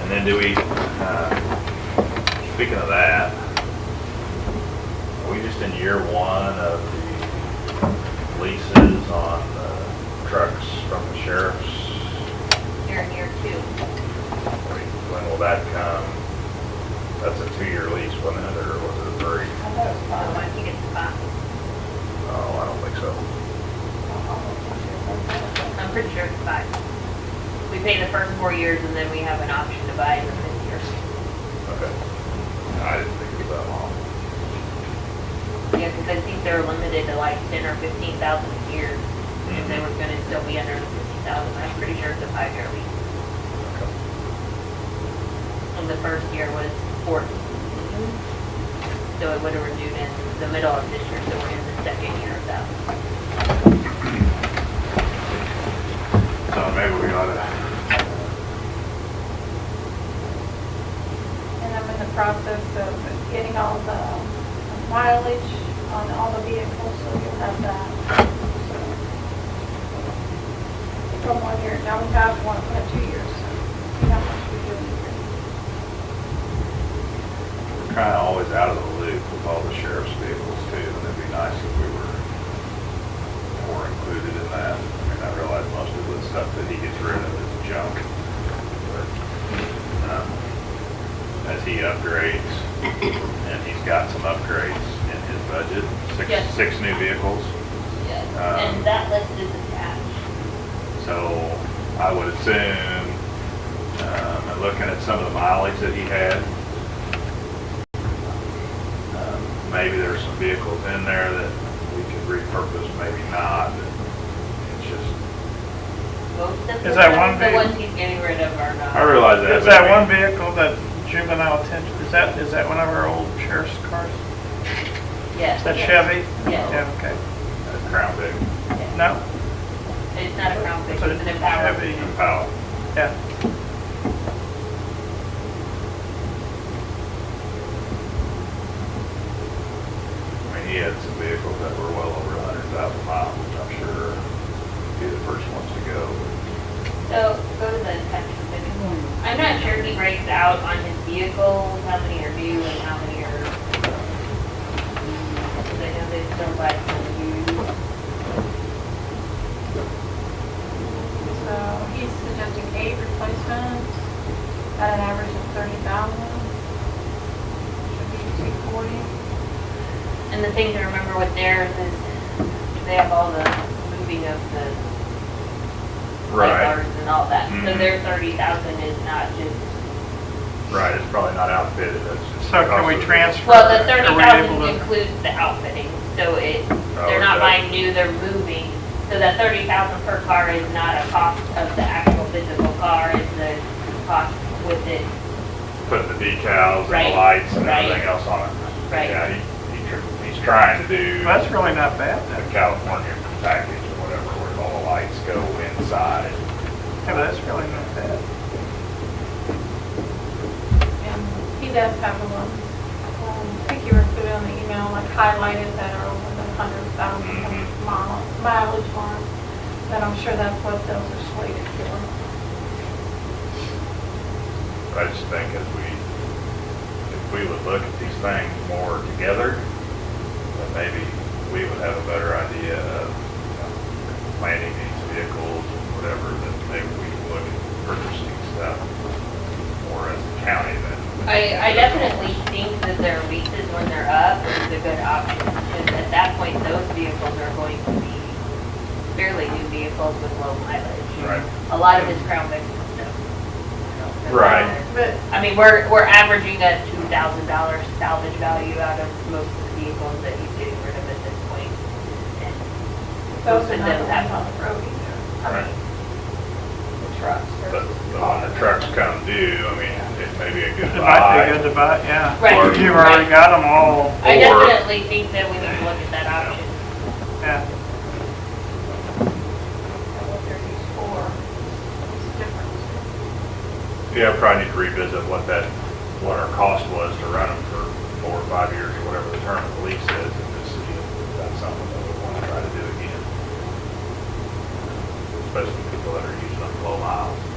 And then do we, uh, speaking of that, are we just in year one of the leases on the trucks from the sheriff's? You're in year two. I mean, When will that come? That's a two-year lease, wasn't it, or was it a three? I thought it was five. I think it's five. Oh, I don't think so. I'm pretty sure it's five. We pay the first four years and then we have an option to buy in the fifth year. Okay. I didn't think it was that long. Yeah, because I think they're limited to like ten or fifteen thousand a year. If they were gonna still be under the fifteen thousand, I'm pretty sure it's a five-year lease. Okay. And the first year was fourteen. So it would have renewed in the middle of this year, so we're in the second year of that. So maybe we ought to, And I'm in the process of getting all the mileage on all the vehicles, so you'll have that. So, From one year, now we have one, we have two years, so see how much we do. in a year. we're kind of always out of the loop with all the sheriff's vehicles too, and it'd be nice if we were, were included in that. I mean, I realize most of the stuff that he gets rid of is junk, but, um, as he upgrades, and he's got some upgrades in his budget, Yes. six, six new vehicles. Yes, Um, and that list is attached. So I would assume, um, and looking at some of the mileage that he had, um, maybe there's some vehicles in there that we could repurpose, maybe not. It's just, Most of Is the- that one The big- ones he's getting rid of are not. I realize that. Is that one vehicle that juvenile attention, is that, is that one of our old sheriff's cars? Yes. Is that Chevy? Yes. Yeah, okay. one? Crown Vic, yes. No? It's not a Crown Vic, it's So an Impala. Chevy. Impala. Yeah. I mean, he had some vehicles that were well over a hundred thousand miles, which I'm sure would be the first ones to go. So go to the attachment. thing. I'm not sure he breaks out on his vehicles, how many are new and how many are. Because I know they still buy some used. So he's suggesting eight replacements at an average of thirty thousand. Should be two forty. And the thing to remember with theirs is they have all the moving of the light bars and all that. So Mhm. their thirty thousand is not just, Right, it's probably not outfitted, that's just. So can we transfer? well, the Are thirty we able thousand to- includes the outfitting, so it, Oh, they're not okay. buying new, they're moving. So that thirty thousand per car is not a cost of the actual physical car, it's the cost with it, putting the decals and Right, the lights and right. everything else on it. Right. Yeah, he, he tr- he's trying to do Well, That's the really not bad then. California package or whatever, where all the lights go inside. Yeah, but that's really not bad. And he does have a lot. Um, I think you were put on the email, like highlighted that are over the hundred thousand Mhm. mile, mileage mark. But I'm sure that's what those are slated for. But I just think as we, if we would look at these things more together, then maybe we would have a better idea of you know, planning these vehicles and whatever, that maybe we would purchasing stuff more as a county than. I, I definitely think that their leases when they're up is a good option, because at that point, those vehicles are going to be fairly new vehicles with low mileage. Right. A lot of his Crown Vics and stuff. you know, they're Right. not- But I mean, we're, we're averaging a two thousand dollar salvage value out of most of the vehicles that he's getting rid of at this point. And those are most of not them the have ones on the road either. I Right. mean, the trucks. are- But but when the trucks come due, I mean, it may be a good It might be buy. good to buy, yeah. Right, Or You've already right. got them all, I Or- definitely think that we need to look at that option. yeah. And what they're used for is different. Yeah, I probably need to revisit what that, what our cost was to run them for four or five years or whatever the term of the lease is and just see if that's something that we want to try to do again. Especially people that are using them low miles.